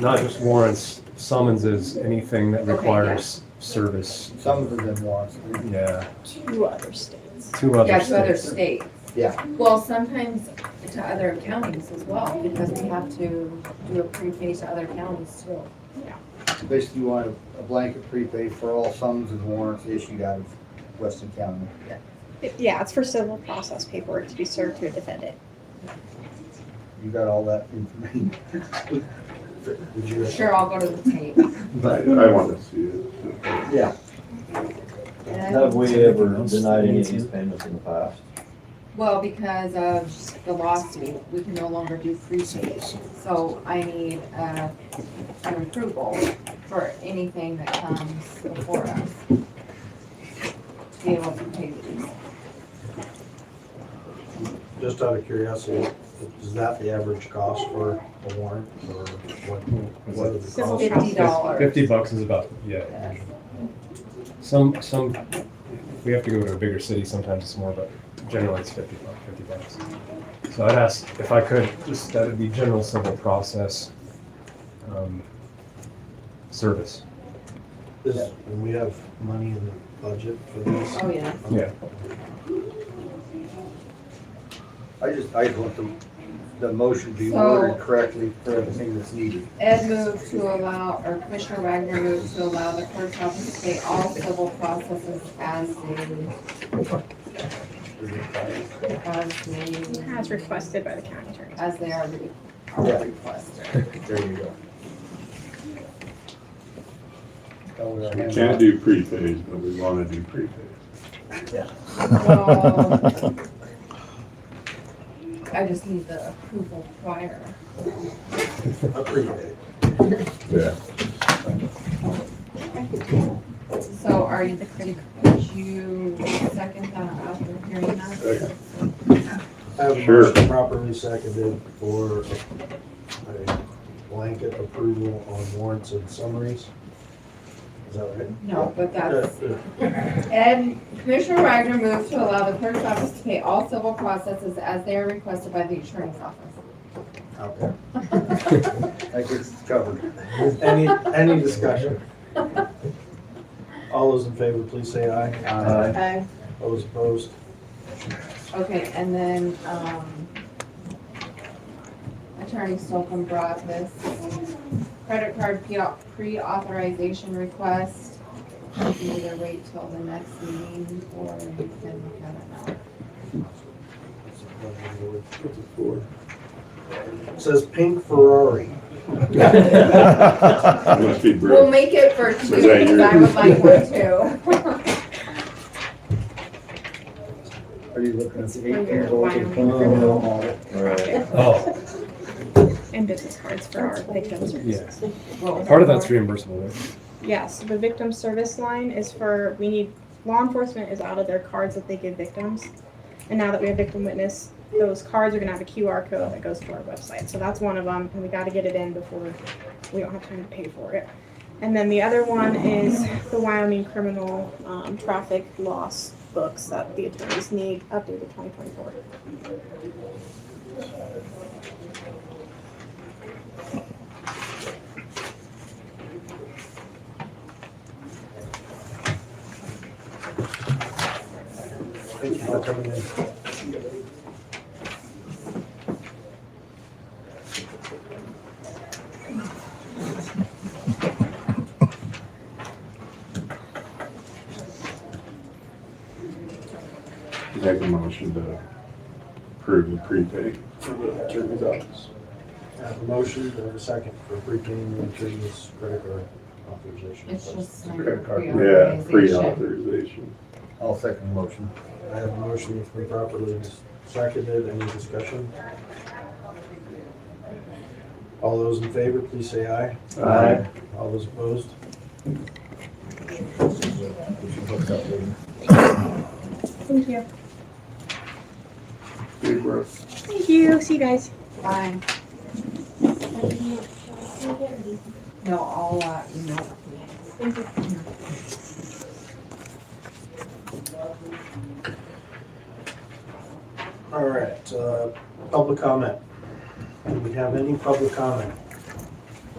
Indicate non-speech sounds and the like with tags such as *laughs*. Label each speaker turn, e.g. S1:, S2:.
S1: not just warrants, summonses, anything that
S2: Okay,
S1: requires service.
S3: Some of them warrants, we-
S1: Yeah,
S4: Two other states.
S1: two other
S2: Yeah, to other
S1: states.
S2: states.
S3: yeah,
S2: Well, sometimes to other counties as well, because we have to do a prepay to other counties too.
S3: basically you want a- a blanket prepaid for all sums and warrants issued out of Weston County.
S4: Yeah, it's for civil process paperwork to be served to a defendant.
S3: You got all that information? Would you-
S2: Sure, I'll go to the tape.
S5: I,
S3: But,
S5: I want to see it.
S3: yeah,
S2: And I-
S6: Have we ever denied any of these payments in the past?
S2: Well, because of the lawsuit, we can no longer do prepay. So I need uh, an approval for anything that comes before us. To be able to pay these.
S7: Just out of curiosity, is that the average cost for a warrant or what, what are the costs?
S4: Civil
S2: Fifty dollars.
S1: Fifty bucks is about, yeah.
S2: Yes.
S1: Some, some, if we have to go to a bigger city, sometimes it's more, but generally it's fifty bucks, fifty bucks. So I'd ask if I could, just, that would be general civil process, um, service.
S7: Is- And we have money in the budget for this?
S2: Oh, yeah.
S1: Yeah.
S3: I just, I just want the, the motion to be
S2: So-
S3: worded correctly for everything that's needed.
S2: Ed moved to allow, or Commissioner Wagner moved to allow the clerk's office to pay all civil processes as the, as the,
S4: As requested by the county attorney.
S2: as they are re- are requested.
S3: There you go. That was our
S5: We
S3: hand.
S5: can't do prepays, but we want to do prepays.
S2: So- I just need the approval prior.
S7: A prepaid.
S5: Yeah.
S2: So are you, did you second that after hearing that?
S7: I have a
S5: Sure.
S7: motion properly seconded for a blanket approval on warrants and summaries. Is that right? Uh,
S2: No, but that's.
S7: Yeah, yeah.
S2: Ed, Commissioner Wagner moved to allow the clerk's office to pay all civil processes as they are requested by the attorney's office.
S7: uh, Okay.
S3: That gets covered.
S7: Any, any discussion? All those in favor, please say aye.
S3: Aye.
S7: Those opposed?
S2: Okay, and then, um, Attorney Stolpen brought this credit card pre- pre-authorization request. You can either wait till the next meeting or you can look at it
S7: It Says pink Ferrari.
S5: It Must be
S2: now. We'll
S5: brick.
S2: make it for two,
S5: Was that
S2: because I would like one too. *laughs*
S3: Are you looking at the
S4: When you're
S3: eighteen goals
S4: wiring
S3: of
S4: the
S3: criminal audit?
S6: Right.
S1: Oh,
S4: And business cards for our victims.
S1: yeah.
S2: What was
S1: Part of
S2: that
S1: that's
S2: for?
S1: reimbursable, right?
S4: Yes, the victim service line is for, we need, law enforcement is out of their cards that they give victims. And now that we have victim witness, those cards are gonna have a QR code that goes to our website. So that's one of them, and we gotta get it in before, we don't have time to pay for it. And then the other one is the Wyoming criminal, um, traffic loss books that the attorneys need updated twenty twenty-four.
S7: Thank you for coming in.
S5: Make a motion to approve the prepay for the attorney's office.
S7: I have a motion, do I have a second for prepaying the attorney's credit card authorization.
S2: It's
S7: request?
S2: just like
S1: Credit card.
S5: Yeah,
S2: pre-authorization.
S5: pre-authorization.
S3: I'll second the motion.
S7: I have a motion, it's been properly seconded, any discussion? All those in favor, please say aye.
S3: Aye.
S7: All those opposed?
S4: Thank you.
S5: Big breath.
S4: Thank you, see you guys.
S2: Fine. No, I'll, uh, email.
S7: All right, uh, public comment. Do we have any public comment?